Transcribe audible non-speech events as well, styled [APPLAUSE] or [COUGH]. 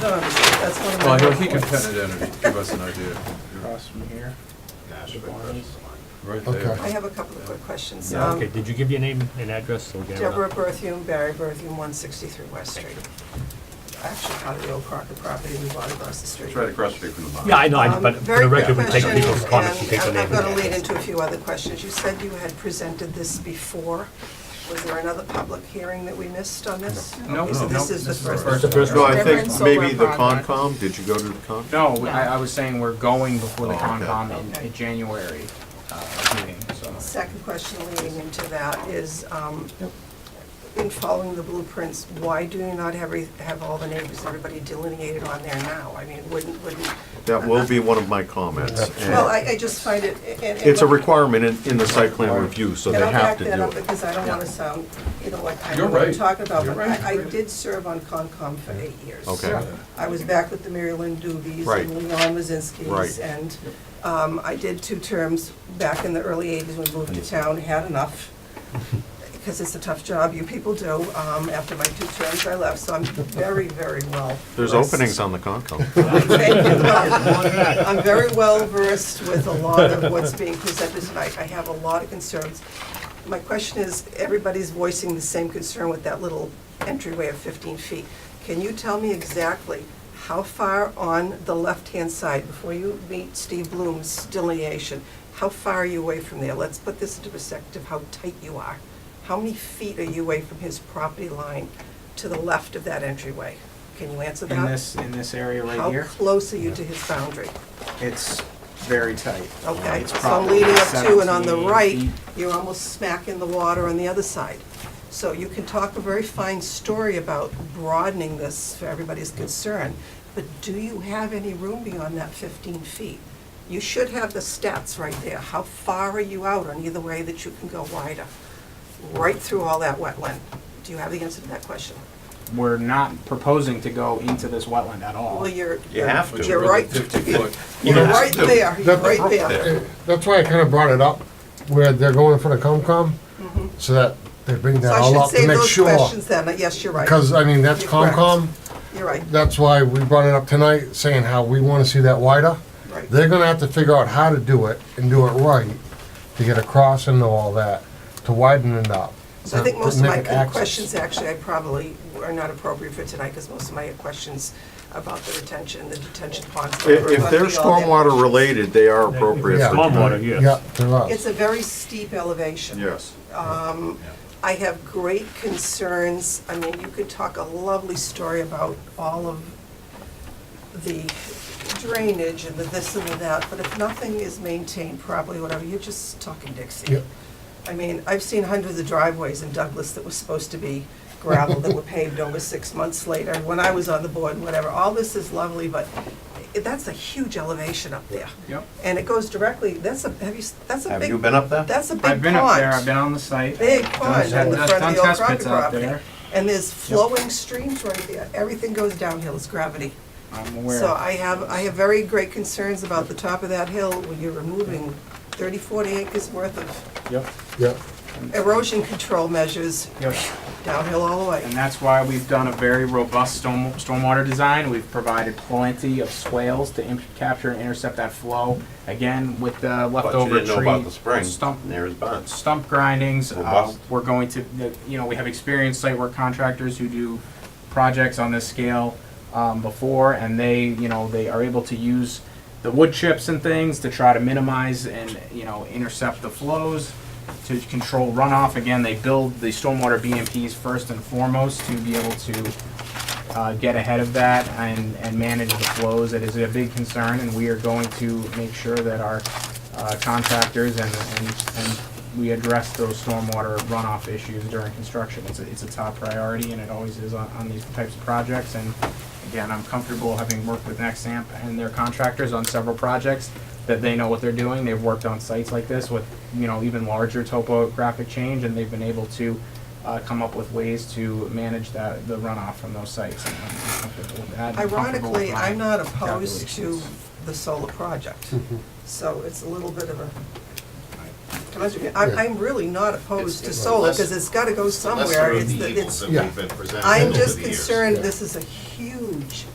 No, no, that's one of my. Well, he'll- he can pen it in and give us an idea. Across from here. Right I there. have a couple of quick questions. Yeah, Um, Okay, did you give your name and address? so we can have it up? Deborah Berthium, Barry Berthium, 163 West Street. Actually, on the old Crockett property, we bought across the street. It's right across the street from the mine. Yeah, I know, I- Um, but for the record, we take Very quick people's question, comments, we and take their I'm- name and I'm going to lead address. into a few other questions. You said you had presented this before. Was there another public hearing that we missed on this? No, Okay, so no, this no, is the this is the first. first The first No, one. I Reverend think Solar maybe the Project. Concom, did you go to the Concom? No, I, I was saying we're going before the Oh, okay. Concom in, Okay. in January, uh, meeting, so. Second question leading into that is, um, in following the blueprints, why do you not have, re- have all the neighbors, everybody delineated on there now? I mean, it wouldn't, wouldn't, That will be one of my comments. and well, I, I just find it, and- and. It's a requirement in, in the site plan review, so they And I'll have back to that do up it. because I don't want to sound, you know, like I You're know what I'm right. talking about, You're but right. I, I did serve on Concom for eight years. Okay. I was back with the Mary Lynn Doobies Right. and Leon Wazinski's. Right. And um, I did two terms back in the early 80s when we moved to town, had [LAUGHS] enough, because it's a tough job, you people do. Um, After my two terms, I left, so I'm very, very well. There's versed. openings on the [LAUGHS] Concom. Thank you. Well, I'm very well versed with a lot of what's being presented tonight. I have a lot of concerns. My question is, everybody's voicing the same concern with that little entryway of 15 feet. Can you tell me exactly how far on the left-hand side, before you meet Steve Bloom's delineation, how far are you away from there? Let's put this into perspective, how tight you are. How many feet are you away from his property line to the left of that entryway? Can you answer that? In this, in this area right How here, close are you to his boundary? it's very tight. Okay, Uh, It's so I'm probably leading up to, and on the 17 right, feet. you're almost smack in the water on the other side. So you can talk a very fine story about broadening this for everybody's concern, but do you have any room beyond that 15 feet? You should have the stats right there. How far are you out on either way that you can go wider? Right through all that wetland. Do you have the answer to that question? We're not proposing to go into this wetland at all. Well, you're, You have to. you're right, Fifty foot. [LAUGHS] you're [LAUGHS] right there, you're That's- right there. That's why I kinda brought it up, where they're going for the COMCOM, so that they bring Mm-hmm. So that all I up should save to make those sure. questions then, Uh, yes, you're right. Because, I mean, that's You're correct. COMCOM, You're right, that's why we brought it up tonight, saying how we wanna see that wider. right. They're gonna have to figure out how to do it and do it right, to get across and know all that, to widen it up. So I think most of my Make access. questions, actually, I probably are not appropriate for tonight, because most of my questions about the retention, the detention ponds. I- If they're stormwater related, they are appropriate Yeah. for tonight. Stormwater, yes. Yeah, to us. It's a very steep elevation. Yes. I have great concerns, I mean, you could talk a lovely story about all of the drainage and the this and the that, but if nothing is maintained properly, whatever, you're just talking Dixie. Yep. I mean, I've seen hundreds of driveways in Douglas that were supposed to be gravel that were paved over six months later, when I was on the board, whatever. All this is lovely, but i- that's a huge elevation up there. Yep. And it goes directly, that's a, have you, s- that's a big. Have you been up there? That's a big pond I've been up there, I've been on the site. big Done- pond on the done- front of done the old test Crockett pits out property. there. And there's flowing streams right there. Everything goes downhill, it's gravity. I'm aware. So I have, I have very great concerns about the top of that hill when you're removing 30, 40 acres worth of Yep, Yeah. erosion control measures yep. downhill all the And way. that's why we've done a very robust storm, stormwater design. We've provided plenty of swales to in- capture and intercept that flow. Again, with the But you leftover didn't know about tree, the spring, stump, and there is bonds. stump grindings. uh, Robust. We're going to, the- you know, we have experienced site work contractors who do projects on this scale um, before, and they, you know, they are able to use the wood chips and things to try to minimize and, you know, intercept the flows, to control runoff. Again, they build the stormwater BMPs first and foremost to be able to uh, get ahead of that and, and manage the flows. It is a big concern, and we are going to make sure that our uh, contractors and, and, and we address those stormwater runoff issues during construction. It's a, it's a top priority, and it always is on, on these types of projects. And again, I'm comfortable having worked with Nexamp and their contractors on several projects, that they know what they're doing. They've worked on sites like this with, you know, even larger topographic change, and they've been able to uh, come up with ways to manage that, the runoff from those sites. and I'm comfortable with that and comfortable with Ironically, my I'm not opposed to calculations. the solar project, so it's a little bit of a, Can I ask you- I'm, I'm really not opposed to It's- solar, it's- because it's gotta go Unless somewhere. there are It's, the the- evils it's, that Yeah. we've been presented over I'm the years. just concerned, this is a huge